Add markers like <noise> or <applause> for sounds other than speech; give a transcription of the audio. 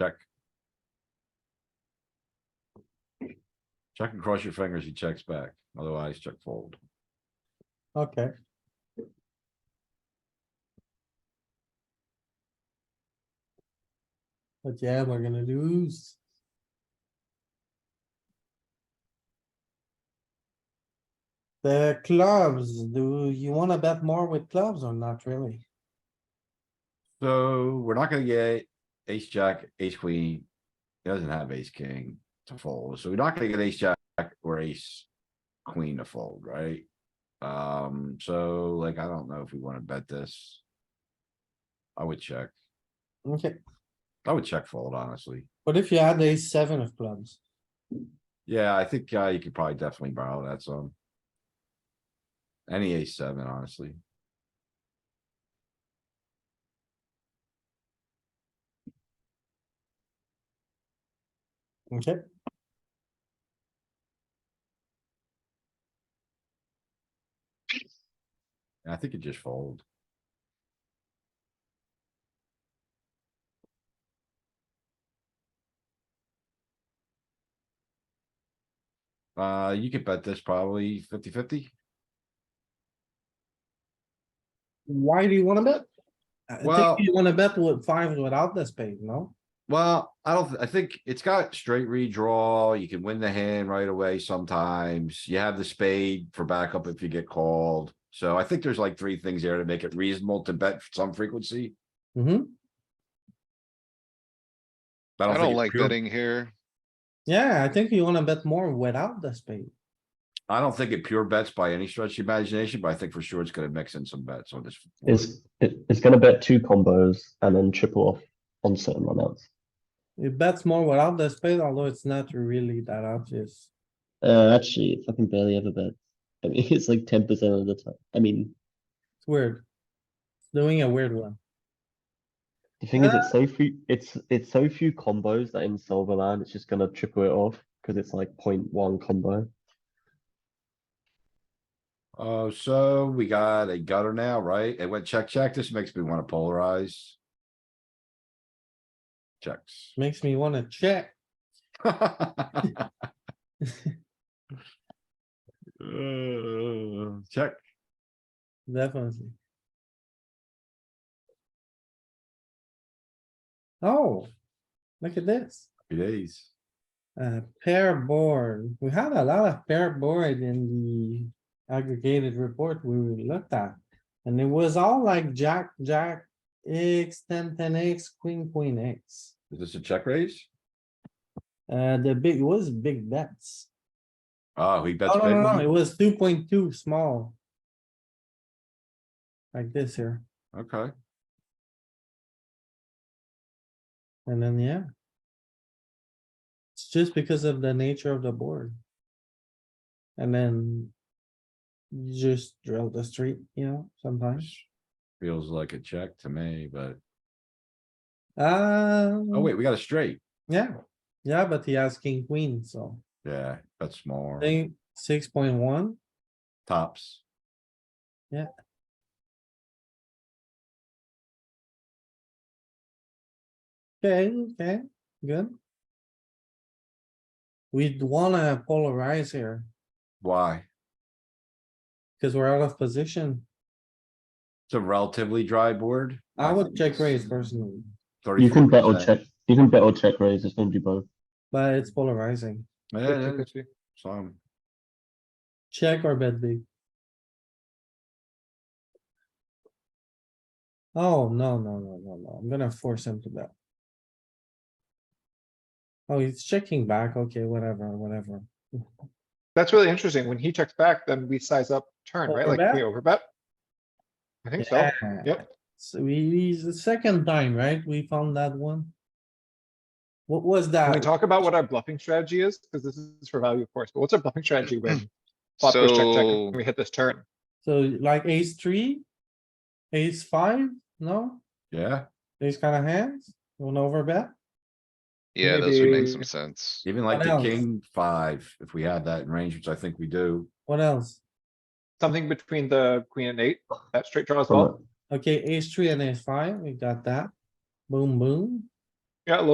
Check. Check and cross your fingers, he checks back, otherwise check fold. Okay, but yeah, we're gonna lose. The clubs, do you wanna bet more with clubs or not really? So we're not gonna get ace, jack, ace, queen. He doesn't have ace, king to fold, so we're not gonna get ace, jack or ace, queen to fold, right? Um, so like, I don't know if we wanna bet this. I would check. Okay, I would check fold, honestly. what if you had a seven of clubs? Yeah, I think, uh, you could probably definitely borrow that some. Any ace seven, honestly. Okay, I think it just fold. Uh, you could bet this probably 50 50. why do you wanna bet? I Well- think you wanna bet with fives without the spade, no? Well, I don't, th- I think it's got straight redraw. You can win the hand right away sometimes. You have the spade for backup if you get called. So I think there's like three things there to make it reasonable to bet some frequency. Mm-hmm. but I think don't it's like pure- betting here. Yeah, I think you wanna bet more without the spade. I don't think it pure bets by any stretch of the imagination, but I think for sure it's gonna mix in some bets on this. board. It's it, it's going to bet two combos and then triple off on certain runouts. It bets more without the spade, although it's not really that obvious. Uh, actually, it fucking barely ever bet. I mean, <laughs> it's like ten percent of the time. I mean, It's weird. Doing a weird one. the thing is, it's so few. It's it's so few combos that in Silverland, it's just going to triple it off because it's like 0.1 combo. Oh, so we got a gutter now, right? It went check, check. This makes me wanna polarize. <laughs> Checks. <laughs> Makes me wanna check. Uh, Check. Definitely. Oh, look at this. It is. Uh, pair board. We had a lot of pair board in the aggregated report we looked at. And it was all like jack, jack, X, ten, ten X, queen, queen X. Is this a check raise? Uh, the big, it was big bets. Oh, he bets. Oh, no, big no, no, one? it was two point two small. Like this here. Okay, And then, yeah. It's just because of the nature of the board. And then. You just drill the street, you know, sometimes. feels like a check to me, but, Uh. oh wait, we got a straight. Yeah, yeah, but he has king, queen, so Yeah, that's I small. think six point one, Tops. okay, okay, good. We'd wanna polarize here, Why? cause we're out of position. It's a relatively dry board. I would check raise personally, You can bet or 34%. check. You can bet or check raise. It's going to do both. but it's polarizing. Yeah, yeah, some. Check or bet big. Oh, no, no, no, no, no. I'm gonna force him to bet. Oh, he's checking back. Okay, whatever, whatever. That's really interesting. When he checks back, then we size up turn, right? Like we overbet. I think so. Yeah. Yep. Ah, So we, it's the second time, right? We found that one. What was Can we that? talk about what our bluffing strategy is? Because this is for value, of course, but what's our bluffing strategy when flop goes check, check, So, and we hit this turn? So like ace three? Ace five? No? Yeah, Ace kind of hands? You wanna overbet? yeah, those would make some Maybe- sense. even like What the else? king five, if we had that in range, which I think we do. What else? Something between the queen and eight, that straight draw as well. Okay, ace three and ace five, we got that. Boom, boom. Yeah, a little